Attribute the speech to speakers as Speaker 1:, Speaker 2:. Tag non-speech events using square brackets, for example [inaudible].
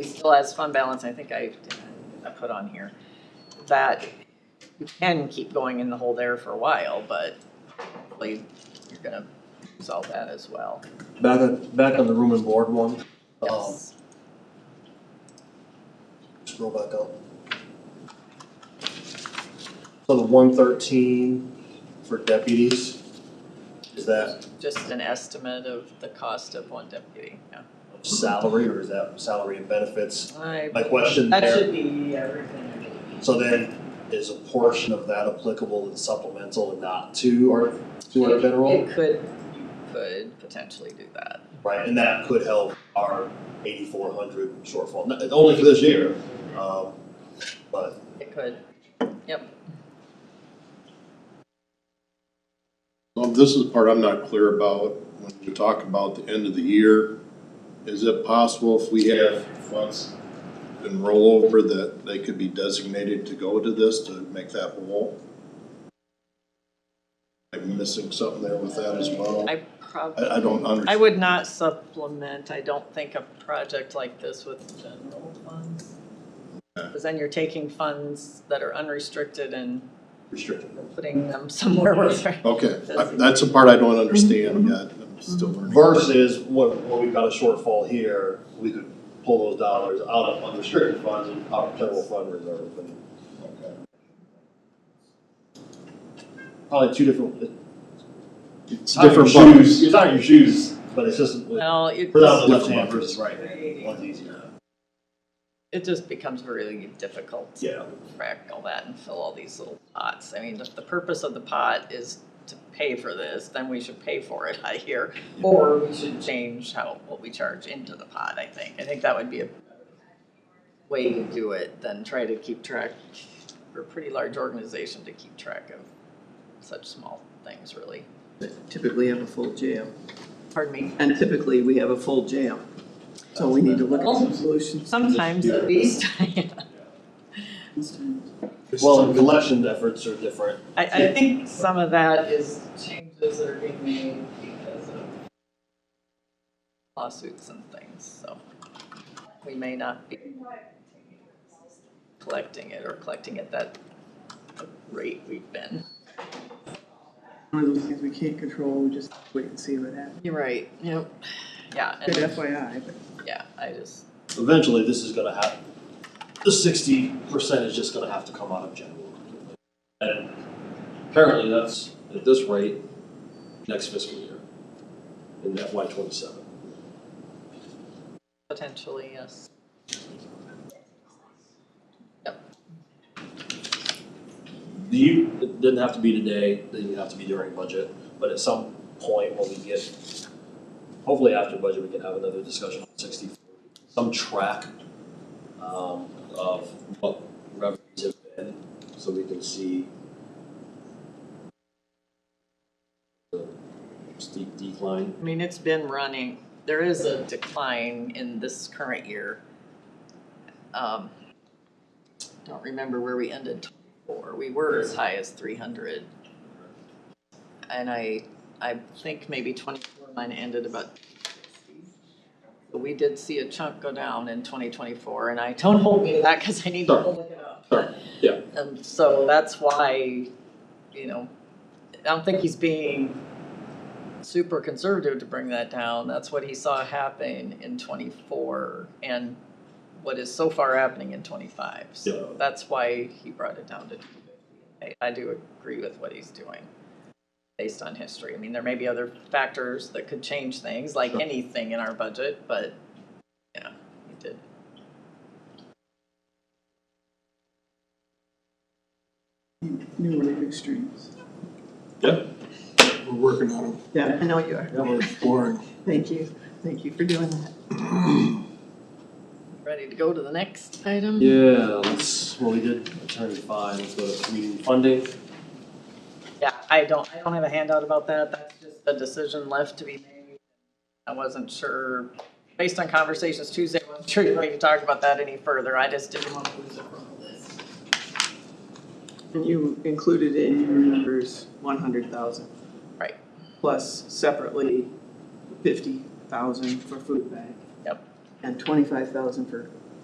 Speaker 1: he still has fund balance, I think I, I put on here, that you can keep going in the hole there for a while, but hopefully you're gonna solve that as well.
Speaker 2: Back, on- back on the room and board one. um,
Speaker 1: Yes.
Speaker 2: Scroll back up. So the one thirteen for deputies, is that
Speaker 1: Just an estimate of the cost of one deputy, yeah.
Speaker 2: salary or is that salary and benefits?
Speaker 1: I-
Speaker 2: My question
Speaker 1: That
Speaker 2: there,
Speaker 1: should be everything.
Speaker 2: so then is a portion of that applicable and supplemental and not to our, to our general?
Speaker 1: It could, you could potentially do that.
Speaker 2: Right, and that could help our eighty-four hundred shortfall, Not- only for this year, um, but
Speaker 1: It could,
Speaker 3: Well, this is the part I'm not clear about, when you talk about the end of the year, is it possible if we have funds in rollover that they could be designated to go to this to make that whole? I'm missing something there with that as well.
Speaker 1: I probably.
Speaker 3: I, I don't
Speaker 1: I
Speaker 3: understand.
Speaker 1: would not supplement, I don't think, a project like this with general funds.
Speaker 3: Okay.
Speaker 1: Because then you're taking funds that are unrestricted and
Speaker 2: restricted.
Speaker 1: putting them [laughs] somewhere where they're.
Speaker 3: Okay, I- that's the part I don't understand yet, I'm still learning.
Speaker 2: Versus what, what we've got a shortfall here, we could pull those dollars out of unrestricted funds and out of general fund reserve and. Probably two different.
Speaker 3: It's
Speaker 2: not your
Speaker 3: different buckets.
Speaker 2: shoes- It's not your shoes, but it's just, put
Speaker 1: Well, it
Speaker 2: out the
Speaker 1: just,
Speaker 2: left
Speaker 3: Different
Speaker 2: hand
Speaker 3: buckets.
Speaker 2: versus right, one's easier.
Speaker 1: it just becomes really difficult to
Speaker 2: Yeah,
Speaker 1: track all that and fill all these little pots. I mean, if the purpose of the pot is to pay for this, then we should pay for it, [laughs] I hear. Or we should change how, what we charge into the pot, I think. I think that would be a way to do it than try to keep track. We're a pretty large organization to keep track of such small things, really.
Speaker 4: typically have a full jam,
Speaker 1: Pardon me.
Speaker 4: and typically we have a full jam. So we need to look at some solutions.
Speaker 1: Sometimes at least, [laughs] I,
Speaker 2: well, and collection efforts are different,
Speaker 1: I think some of that is changes that are being made because of lawsuits and things, so we may not be collecting it or collecting at that rate we've been.
Speaker 4: One of those things we can't control, we just wait and see what happens.
Speaker 1: You're right, yep. Yeah,
Speaker 4: Good
Speaker 1: and,
Speaker 4: FYI, but
Speaker 1: yeah, I just,
Speaker 2: eventually this is gonna happen. The sixty percent is just gonna have to come out of general. And apparently that's at this rate, next fiscal year, in FY twenty-seven.
Speaker 1: potentially, yes.
Speaker 2: Do you, it didn't have to be today, didn't have to be during budget, but at some point when we get, hopefully after budget, we can have another discussion on sixty, some track um of what revenues have been, so we can see the steep decline.
Speaker 1: I mean, it's been running, there is a decline in this current year. Um, Don't remember where we ended twenty-four, we were as high as three hundred. And I, I think maybe twenty-four mine ended about sixty. But we did see a chunk go down in twenty twenty-four, and I, don't hold me to that, cause I need to
Speaker 2: Sure.
Speaker 1: look it up.
Speaker 2: Sure, yeah.
Speaker 1: And so that's why, you know, I don't think he's being super conservative to bring that down. That's what he saw happen in twenty-four and what is so far happening in twenty-five. So that's why he brought it down to two fifty. I, I do agree with what he's doing based on history. I mean, there may be other factors that could change things, like anything in our budget, but yeah, he did.
Speaker 4: you knew we were extremes.
Speaker 5: We're working on them.
Speaker 4: Yeah, I know you are.
Speaker 5: Yeah, we're exploring.
Speaker 4: Thank you, thank you for doing that.
Speaker 1: Ready to go to the next item?
Speaker 2: Yeah, let's, well, we did attorney five, let's go to community funding.
Speaker 1: Yeah, I don't, I don't have a handout about that, that's just a decision left to be made. I wasn't sure, based on conversations Tuesday, I wasn't sure you were ready to talk about that any further, I just didn't want to lose it from the list.
Speaker 4: And you included in your numbers one hundred thousand.
Speaker 1: Right.
Speaker 4: Plus separately fifty thousand for food bank.
Speaker 1: Yep.
Speaker 4: And twenty-five thousand for